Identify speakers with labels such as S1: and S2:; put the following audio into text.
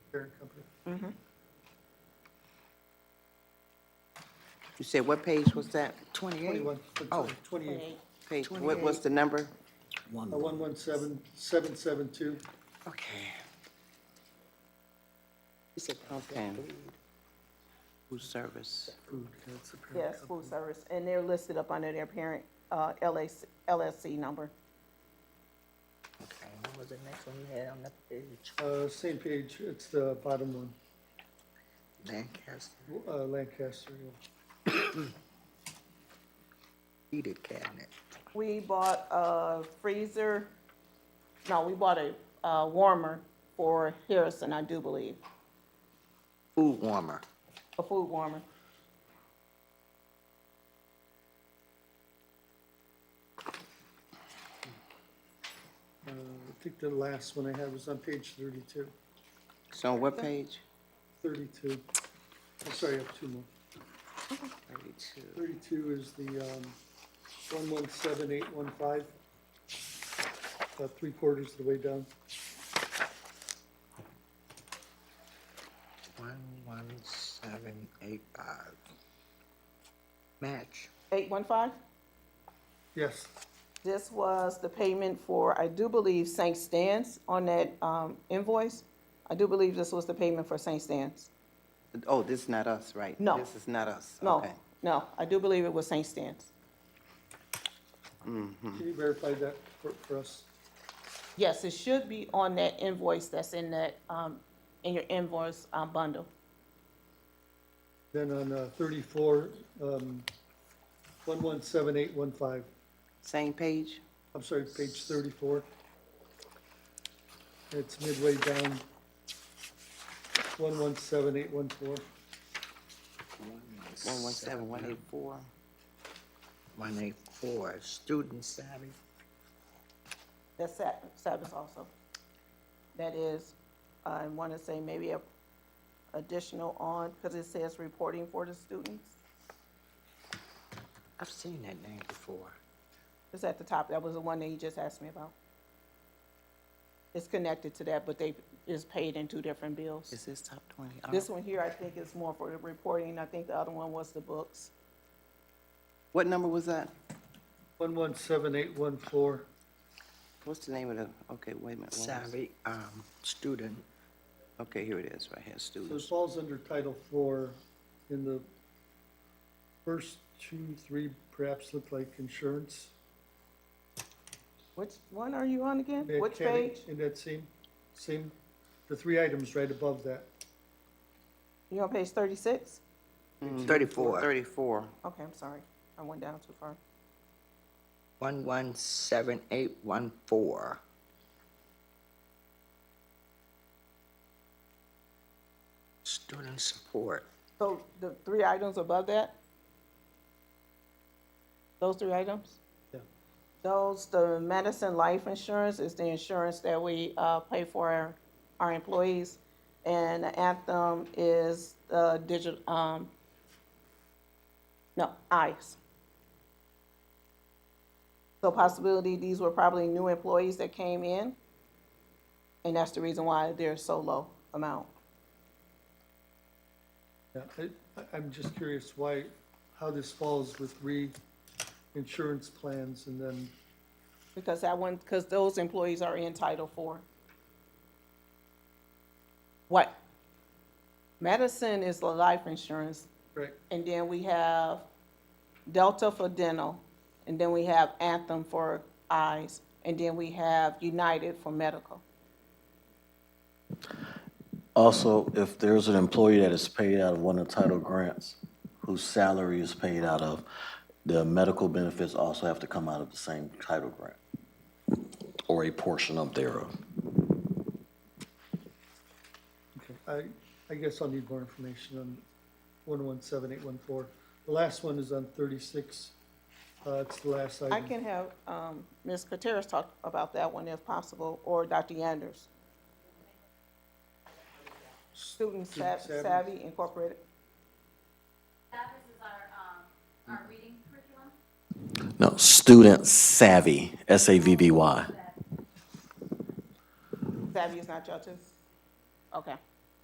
S1: parent company.
S2: You said what page was that?
S3: Twenty-eight.
S1: Twenty-one,
S2: Oh.
S1: twenty-eight,
S2: Page, what was the number?
S1: uh, one one seven, seven seven two.
S2: Okay. Okay. Food service.
S1: Food, that's the parent
S4: Yes,
S1: company.
S4: food service, and they're listed up under their parent, uh, LAC, LSC number.
S3: Okay, what was the next one you had on that page?
S1: Uh, same page, it's the bottom one,
S3: Lancaster
S1: uh, Lancaster, yeah.
S3: heated cabinet.
S4: We bought a freezer, no, we bought a, uh, warmer for Harrison, I do believe,
S3: Food warmer.
S4: a food warmer.
S1: Uh, I think the last one I had was on page thirty-two,
S2: So what page?
S1: thirty-two. I'm sorry, I have two more.
S2: Thirty-two.
S1: Thirty-two is the, um, one one seven eight one five. About three quarters of the way down.
S3: One, one, seven, eight, five. Match.
S4: Eight one five?
S1: Yes,
S4: This was the payment for, I do believe, St. Stan's on that, um, invoice. I do believe this was the payment for St. Stan's.
S2: Oh, this is not us, right?
S4: No.
S2: This is not us,
S4: No,
S2: okay.
S4: no, I do believe it was St. Stan's.
S1: can you verify that for, for us?
S4: Yes, it should be on that invoice that's in that, um, in your invoice, um, bundle.
S1: Then on, uh, thirty-four, um, one one seven eight one five,
S2: Same page?
S1: I'm sorry, page thirty-four. It's midway down. One one seven eight one four.
S2: One one seven, one eight four.
S3: One, eight, four, student savvy.
S4: That's Sa- Sabbath also. That is, I want to say maybe a additional on, because it says reporting for the students.
S3: I've seen that name before.
S4: It's at the top, that was the one that you just asked me about. It's connected to that, but they, is paid in two different bills.
S2: Is this top twenty? Uh,
S4: This one here, I think is more for the reporting, I think the other one was the books.
S2: What number was that?
S1: One one seven eight one four.
S2: What's the name of the, okay, wait a minute. one more-
S3: Savvy, um, student.
S2: Okay, here it is, right here,
S1: So it
S2: students.
S1: falls under Title Four in the first two, three perhaps look like insurance.
S4: Which one are you on again? Which
S1: Mechanic
S4: page?
S1: In that same, same, the three items right above that.
S4: You on page thirty-six?
S3: Thirty-four.
S2: Thirty-four.
S4: Okay, I'm sorry, I went down too far.
S3: One, one, seven, eight, one, four. Student support.
S4: So the three items above that? Those three items?
S1: Yeah.
S4: Those, the medicine life insurance is the insurance that we, uh, pay for our, our employees. And the Anthem is, uh, digital, um, no, ICE. So possibility, these were probably new employees that came in. And that's the reason why they're so low amount.
S1: Yeah, I- I, I'm just curious why, how this falls with reinsurance plans and then,
S4: Because that one, because those employees are in Title IV. What? Medicine is the life insurance,
S1: right,
S4: and then we have Delta for dental, and then we have Anthem for eyes, and then we have United for medical.
S5: Also, if there's an employee that is paid out of one of the title grants, whose salary is paid out of, the medical benefits also have to come out of the same title grant, or a portion of thereof.
S1: I, I guess I'll need more information on one one seven eight one four. The last one is on thirty-six, uh, it's the last item.
S4: I can have, um, Ms. Coteras talk about that one if possible, or Dr. Yanders. Student Sav-
S1: Savvy.
S4: Savvy Incorporated.
S6: Savvis is our, um, our reading curriculum.
S5: No, student savvy, S-A-V-V-Y.
S4: Savvy is not judges? Okay.